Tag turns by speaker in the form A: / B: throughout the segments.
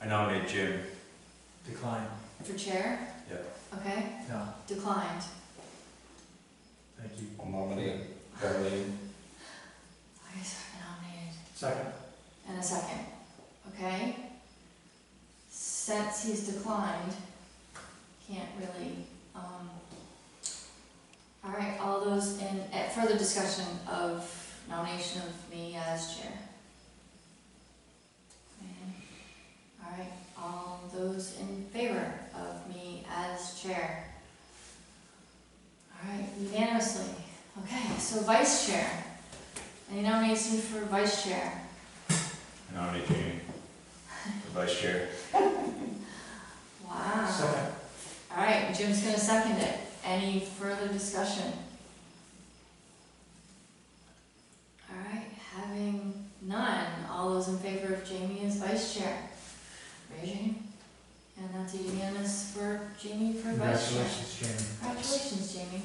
A: I nominate Jim.
B: Decline,
C: For chair?
A: Yeah.
C: Okay,
B: no,
C: declined.
B: thank you.
D: I'll nominate Darlene.
C: Okay, so I've been nominated.
B: Second,
C: And a second, okay? Since he's declined, can't really, um, all right, all those in, at further discussion of nomination of me as chair. And, All right, all those in favor of me as chair? All right, unanimously, okay, so vice chair. Any nomination for vice chair?
A: I nominate Jamie for vice chair.
C: Wow.
B: second,
C: All right, Jim's gonna second it. Any further discussion? All right, having none, all those in favor of Jamie as vice chair? Raise your hand. And that's a unanimous for Jamie for vice chair.
B: congratulations, Jamie.
C: Congratulations, Jamie.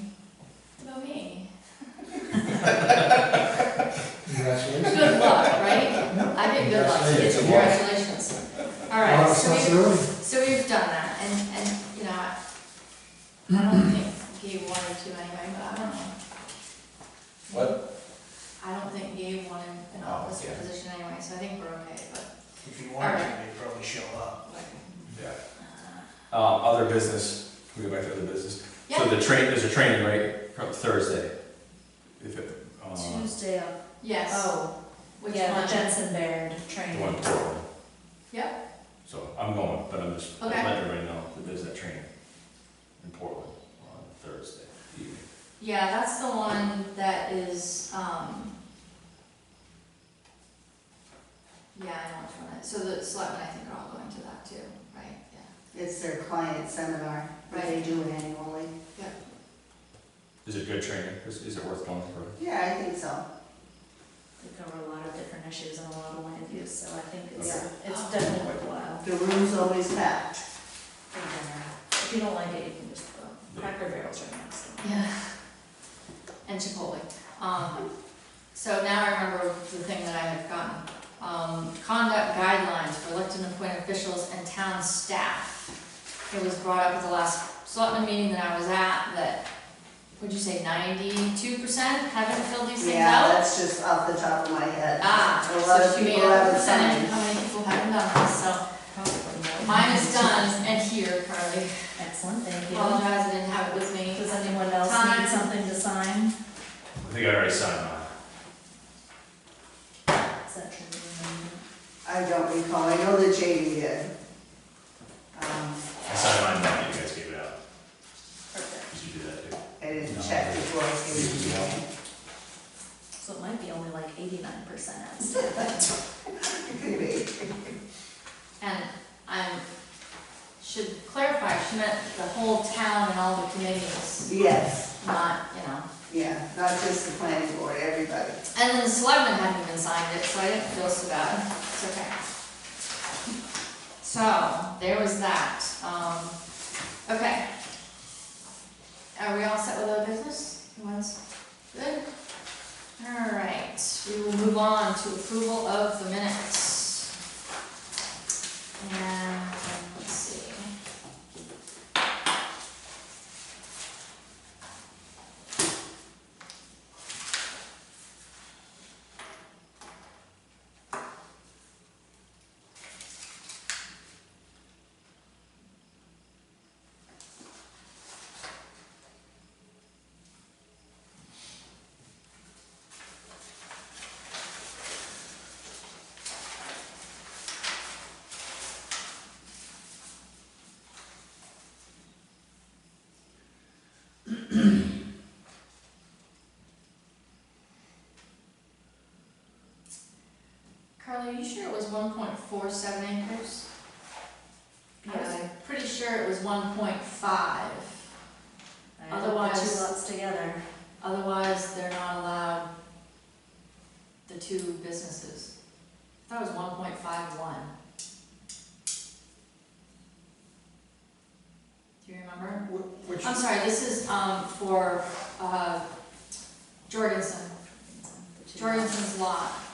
C: What about me?
B: Congratulations.
C: Good luck, right? I get good luck,
B: Congratulations.
C: so congratulations. All right,
B: Wow,
C: so
B: Oh,
C: we
B: that's early.
C: So we've done that, and, and, you know, I I don't think Gabe wanted to anyway, but I don't know.
D: What?
C: I don't think Gabe wanted an
D: Oh,
C: office
D: yeah.
C: position anyway, so I think we're okay, but,
E: If you wanted to, they'd probably show up.
D: Yeah.
C: uh,
D: Um, other business, can we go back to other business? So
C: yeah,
D: the train, there's a training, right, from Thursday? If it, uh, the
F: Tuesday,
C: yes.
F: oh,
C: Which
F: yeah,
C: one?
F: the Jensen Baird
D: one in
F: training.
D: Portland.
C: Yep,
D: So I'm going, but I'm just,
C: Okay.
D: letting everybody know that there's that training in Portland on Thursday evening.
C: yeah, that's the one that is, um, yeah, I know which one that, so the selectmen, I think, are all going to that too, right? Yeah.
G: It's their client seminar, but they do it annually.
D: Is it good training? Is, is it worth going for?
G: Yeah, I think so.
F: We cover a lot of different issues and a lot of land use, so I think it's,
G: Yeah.
F: it's definitely worthwhile.
G: The room's always packed.
F: in general. If you don't like it, you can just go, Cracker Barrel's right next to it.
C: Yeah. And Chipotle. Um, so now I remember the thing that I had gotten. Um, conduct guidelines for elected and appointed officials and town staff. It was brought up at the last selectman meeting that I was at, that, would you say ninety-two percent haven't filled these things
G: Yeah,
C: out?
G: that's just off the top of my head.
C: Ah,
G: A lot of
C: so she made
G: people
C: a
G: haven't
C: percentage,
G: signed.
C: of how many people haven't done this, so
F: Probably no.
C: mine is done and here currently.
F: Excellent, thank you.
C: Apologize, I didn't have it with me.
F: Does anyone else
C: Time.
F: need something to sign?
A: I think I already signed mine.
F: Is that true?
G: I don't recall, I know that Jamie did. Um,
A: I signed mine now that you guys gave it out.
F: Perfect.
A: Did you do that too?
G: I didn't
D: No.
G: check before I came
F: So it might be only like eighty-nine percent out.
G: It could be.
C: And I should clarify, she meant the whole town and all the committees,
G: Yes,
C: not, you know.
G: yeah, not just the planning board, everybody.
C: And then the selectmen haven't even signed it, so I didn't feel so bad, it's okay. So, there was that, um, okay. Are we all set with our business? Everyone's good? All right, we will move on to approval of the minutes. And, let's see. Carly, you sure it was one point four seven acres? I was
F: Yeah,
C: pretty sure it was one point five,
F: I, I put two
C: Otherwise-
F: lots together.
C: otherwise they're not allowed the two businesses. I thought it was one point five one. Do you remember?
B: Wh- Which,
C: I'm sorry, this is, um, for, uh, Jorgensen,
F: The two lots.
C: Jorgensen's lot.
B: Um,